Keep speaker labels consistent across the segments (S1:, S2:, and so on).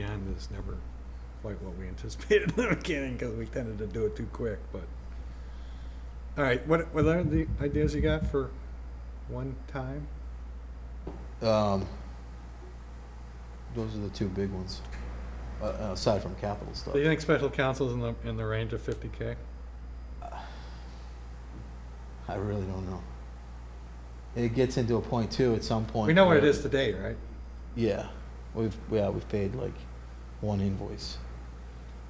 S1: the end is never quite what we anticipated in the beginning, because we tended to do it too quick, but. All right, what, what are the ideas you got for one time?
S2: Um, Those are the two big ones, uh, aside from capital stuff.
S1: Do you think special counsel's in the, in the range of fifty K?
S2: I really don't know. It gets into a point too, at some point.
S1: We know what it
S2: where-
S1: is today, right?
S2: Yeah, we've, yeah, we've paid like one invoice.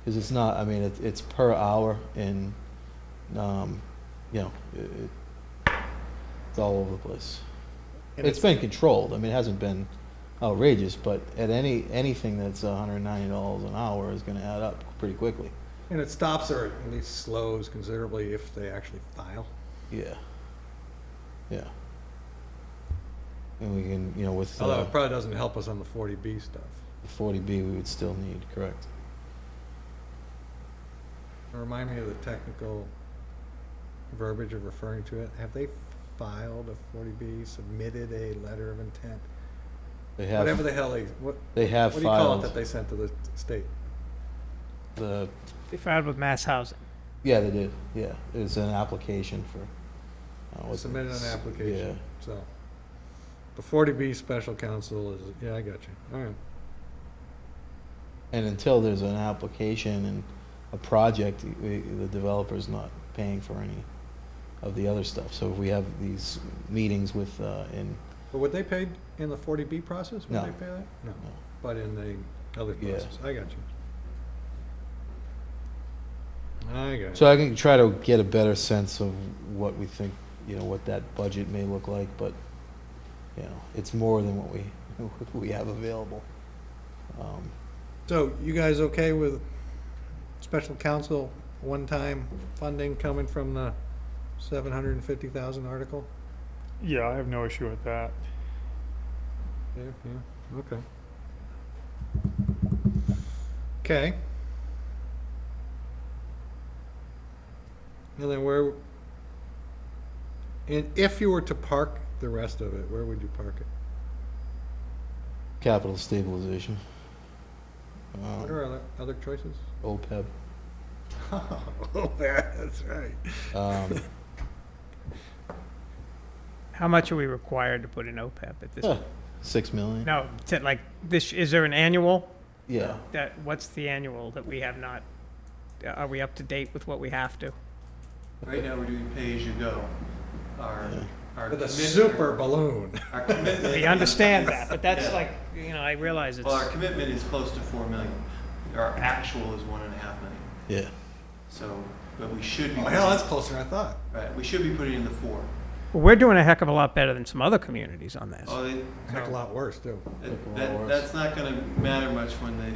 S2: Because it's not, I mean, it's, it's per hour and, um, you know, it, it- it's all over the place.
S1: And
S2: It's been controlled, I mean, it hasn't been outrageous, but at any, anything that's hundred and ninety dollars an hour is gonna add up pretty quickly.
S1: And it stops or at least slows considerably if they actually file.
S2: Yeah. Yeah. And we can, you know, with
S1: Although
S2: uh,
S1: it probably doesn't help us on the forty B stuff.
S2: the 40B, we would still need, correct?
S1: Remind me of the technical verbiage of referring to it. Have they filed a forty B, submitted a letter of intent?
S2: They
S1: Whatever
S2: have,
S1: the hell they, what,
S2: they have
S1: what do you call it that
S2: filed
S1: they sent to the state?
S2: the,
S3: They filed with Mass Housing.
S2: yeah, they did, yeah. It's an application for. uh, what-
S1: Submitted an
S2: s-
S1: application, so. The forty B special counsel is, yeah, I got you, all right.
S2: Yeah, and until there's an application and a project, y- y- the developer's not paying for any of the other stuff. So if we have these meetings with, uh, in,
S1: But were they paid in the forty B process? Would
S2: No.
S1: they pay that? No,
S2: No.
S1: but in the other
S2: Yeah.
S1: process, I got you. I got you.
S2: So I can try to get a better sense of what we think, you know, what that budget may look like, but, you know, it's more than what we, what we have available. Um,
S1: So you guys okay with special counsel, one-time funding coming from the seven hundred and fifty thousand article?
S4: Yeah, I have no issue with that.
S1: Yeah, yeah, okay. Okay. And then where, and if you were to park the rest of it, where would you park it?
S2: Capital stabilization. Um,
S1: What are other, other choices?
S2: OPEB.
S1: Oh, that's right.
S2: Um,
S3: How much are we required to put in OPEB at this?
S2: huh, Six million?
S3: No, to like this, is there an annual?
S2: Yeah,
S3: That, what's the annual that we have not, uh, are we up to date with what we have to?
S5: Right now, we're doing pay-as-you-go. Our,
S2: Yeah.
S5: our.
S1: With a
S5: commitment-
S1: super balloon.
S5: Our commitment.
S3: We understand that, but that's
S5: Yeah.
S3: like, you know, I realize it's,
S5: Well, our commitment is close to four million. Our actual is one and a half million.
S2: yeah.
S5: So, but we should be.
S1: Oh, hell, that's closer than I thought.
S5: Right, we should be putting in the four.
S3: Well, we're doing a heck of a lot better than some other communities on this.
S5: Oh, they-
S1: Heck, a lot worse, too.
S5: that, that, that's not gonna matter much when they,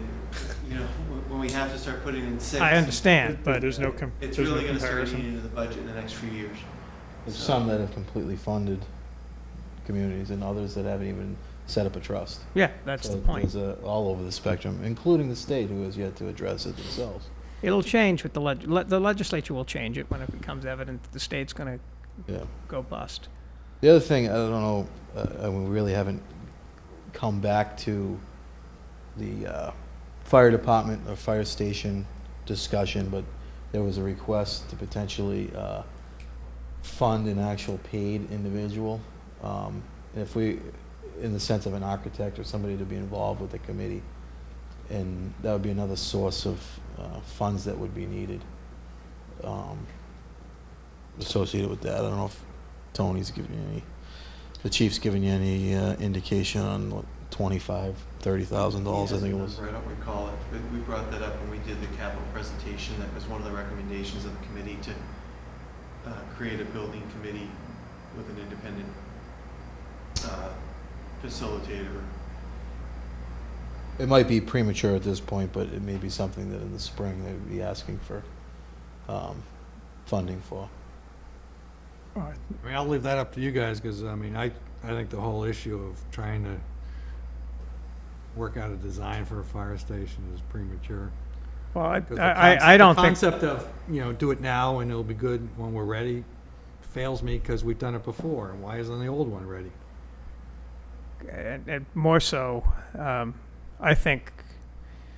S5: you know, when- when we have to start putting in six.
S3: I understand,
S4: But
S3: but
S4: there's no com-
S5: It's
S4: there's no
S5: really gonna start
S4: comparison.
S5: eating into the budget in the next few years.
S2: There's
S5: So-
S2: some that have completely funded communities and others that haven't even set up a trust.
S3: yeah, that's
S2: So
S3: the point.
S2: There's a, all over the spectrum, including the state who has yet to address it themselves.
S3: It'll change with the leg, le- the legislature will change it when it becomes evident that the state's gonna
S2: Yeah.
S3: go bust.
S2: The other thing, I don't know, uh, uh, we really haven't come back to the uh, fire department or fire station discussion, but there was a request to potentially uh, fund an actual paid individual. Um, and If we, in the sense of an architect or somebody to be involved with the committee, and that would be another source of uh, funds that would be needed um, associated with that. I don't know if Tony's giving you any, the chief's giving you any uh, indication on what, twenty-five, thirty thousand dollars, I
S5: He has
S2: think
S5: a
S2: it was.
S5: number, I don't recall it, but we brought that up when we did the capital presentation. That was one of the recommendations of the committee to uh, create a building committee with an independent uh, facilitator.
S2: It might be premature at this point, but it may be something that in the spring they would be asking for, um, funding for.
S4: All right.
S1: I mean, I'll leave that up to you guys, because, I mean, I, I think the whole issue of trying to work out a design for a fire station is premature.
S3: Well, I,
S1: 'Cause the
S3: I,
S1: conce-
S3: I- I don't
S1: the
S3: think,
S1: Concept of, you know, do it now and it'll be good when we're ready fails me, because we've done it before, and why isn't the old one ready?
S3: and, and more so, um, I think